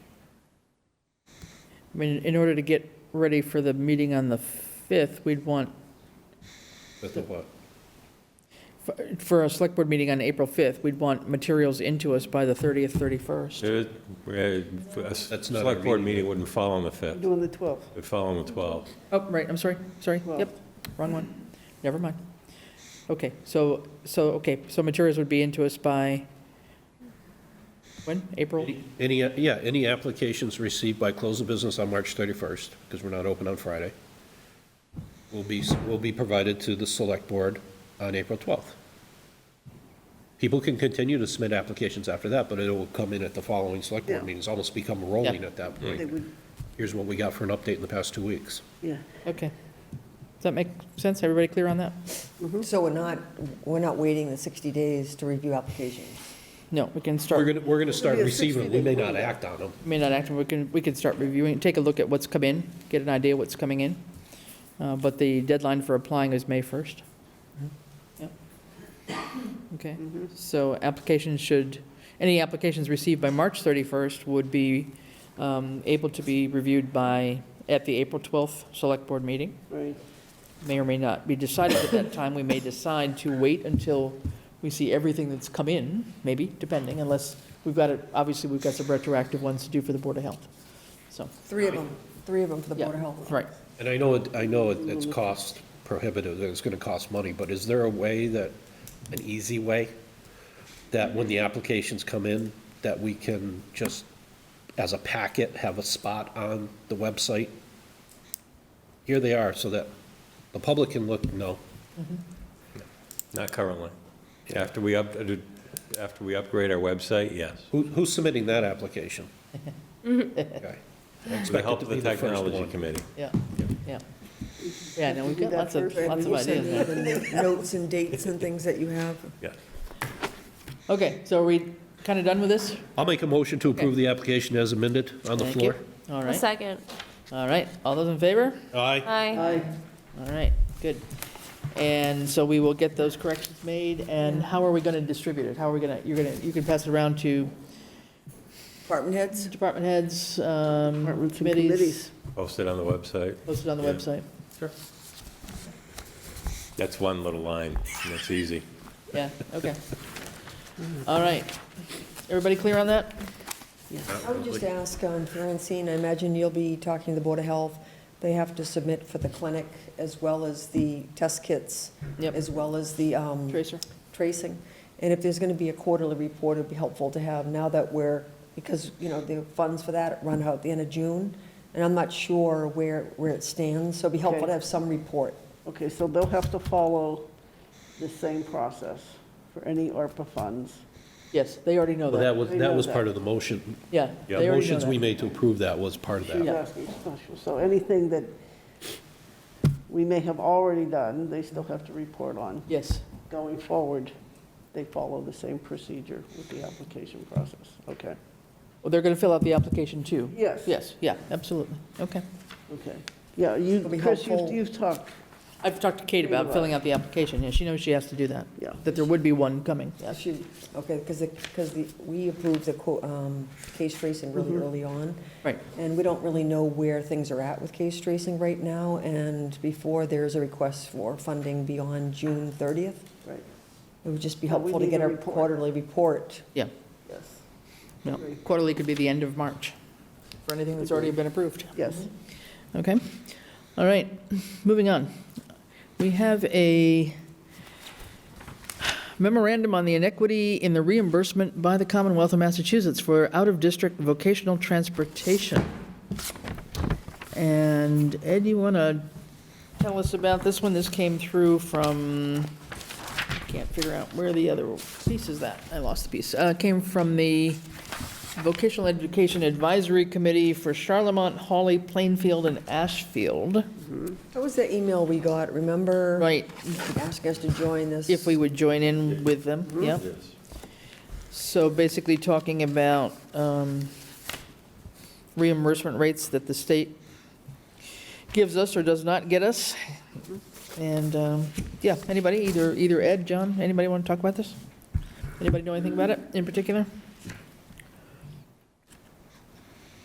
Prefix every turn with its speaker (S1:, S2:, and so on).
S1: I mean, in order to get ready for the meeting on the 5th, we'd want,
S2: That's the what?
S1: for- for a select board meeting on April 5th, we'd want materials into us by the 30th, 31st.
S3: There is- uh, A
S2: That's not a
S3: select board
S2: meeting.
S3: meeting wouldn't fall on the 5th,
S4: Doing the 12th.
S3: it'd fall on the 12th.
S1: Oh, right, I'm sorry, sorry,
S4: Well-
S1: yep, wrong one, never mind. Okay, so, so, okay, so materials would be into us by, when, April?
S2: Any, yeah, any applications received by close of business on March 31st, because we're not open on Friday, will be, will be provided to the select board on April 12th. People can continue to submit applications after that, but it will come in at the following select board
S4: Yeah.
S2: meetings, almost become rolling
S1: Yeah.
S2: at that
S4: They
S2: point.
S4: would,
S2: Here's what we got for an update in the past two weeks.
S4: yeah.
S1: Okay. Does that make sense? Everybody clear on that?
S5: So we're not, we're not waiting the 60 days to review applications?
S1: No, we can start.
S2: We're going to, we're going to start
S4: It'll be a
S2: receiving, them. we
S4: 60-day
S2: may not act on them.
S1: I mean, not active, we can, we can start reviewing, take a look at what's come in, get an idea what's coming in. Uh, But the deadline for applying is May 1st. Yep. Okay, so applications should, any applications received by March 31st would be um, able to be reviewed by, at the April 12th Select Board meeting.
S4: Right.
S1: May or may not be decided at that time. We may decide to wait until we see everything that's come in, maybe, depending, unless we've got it, obviously, we've got some retroactive ones to do for the Board of Health, so.
S5: Three of them, three of them for the Board of Health.
S1: Right.
S2: And I know, it- I know it- it's cost prohibitive, that it's going to cost money, but is there a way that, an easy way, that when the applications come in, that we can just, as a packet, have a spot on the website? Here they are, so that the public can look, no,
S3: Not currently. After we up, uh, after we upgrade our website, yes.
S2: who, who's submitting that application? Okay. I
S3: With the
S2: expect it
S3: help
S2: to
S3: of
S2: be
S3: the
S2: the first
S3: Technology
S2: one.
S3: Committee.
S1: Yeah, yeah. Yeah, no, we've got lots of,
S4: Right,
S1: lots of
S5: We'll send
S1: ideas.
S5: you the Notes and dates and things that you have.
S3: Yeah.
S1: Okay, so are we kind of done with this?
S2: I'll make a motion to approve the application as amended on the
S1: Thank
S2: floor.
S1: you. All
S6: A
S1: right,
S6: second.
S1: all right. All those in favor?
S2: Aye.
S6: Aye.
S1: All right, good. And so we will get those corrections made, and how are we going to distribute it? How are we going to, you're going to, you can pass it around to
S5: Department heads?
S1: department heads, um,
S4: Departments and
S1: committees,
S4: committees.
S3: Posted on the website.
S1: posted on the
S3: Yeah.
S1: website. Sure.
S3: That's one little line, and that's easy.
S1: Yeah, okay. All right. Everybody clear on that?
S5: I would just ask, um, Francine, I imagine you'll be talking to the Board of Health. They have to submit for the clinic as well as the test kits,
S1: Yep.
S5: as well as the um,
S1: Tracer?
S5: tracing. And if there's going to be a quarterly report, it'd be helpful to have now that we're, because, you know, the funds for that run out at the end of June, and I'm not sure where, where it stands, so it'd be helpful
S4: Okay.
S5: to have some report.
S4: Okay, so they'll have to follow the same process for any ARPA funds.
S1: Yes, they already know
S2: Well, that
S1: that.
S2: was,
S4: I
S2: that
S4: know
S2: was
S4: that.
S2: part of the motion.
S1: Yeah,
S3: Yeah,
S1: they
S2: The
S1: already know
S2: motions we
S1: that.
S2: made to approve that was part of
S4: She
S2: that.
S4: was
S1: Yeah.
S4: asking special, so anything that we may have already done, they still have to report on.
S1: Yes,
S4: Going forward, they follow the same procedure with the application process, okay?
S1: well, they're going to fill out the application too.
S4: Yes.
S1: Yes, yeah, absolutely, okay.
S4: Okay, yeah, you,
S5: It'll be
S4: Chris, you-
S5: helpful.
S4: you've talked,
S1: I've talked to Kate about filling out the application, yeah, she knows she has to do that.
S4: Yeah.
S1: That there would be one coming, yes.
S5: She, okay, because, because the, we approved the co- um, case tracing really early on.
S1: Right.
S5: And we don't really know where things are at with case tracing right now, and before there's a request for funding beyond June 30th,
S4: right,
S5: it would just be
S4: But we
S5: helpful to
S4: need
S5: get
S4: a
S5: a
S4: report.
S5: quarterly report.
S1: Yeah,
S4: yes,
S1: no, quarterly could be the end of March for anything that's already been approved.
S4: yes.
S1: Okay, all right, moving on. We have a memorandum on the inequity in the reimbursement by the Commonwealth of Massachusetts for out-of-district vocational transportation. And Ed, you want to tell us about this one? This came through from, can't figure out where the other piece is that. I lost the piece. Uh, Came from the Vocational Education Advisory Committee for Charlemont, Hawley, Plainfield, and Ashfield.
S5: That was the email we got, remember?
S1: Right,
S5: Asking us to join this.
S1: if we would join in with them, yeah.
S3: Yes.
S1: So basically talking about um, reimbursement rates that the state gives us or does not get us. And, um, yeah, anybody, either, either Ed, John, anybody want to talk about this? Anybody know anything about it in particular?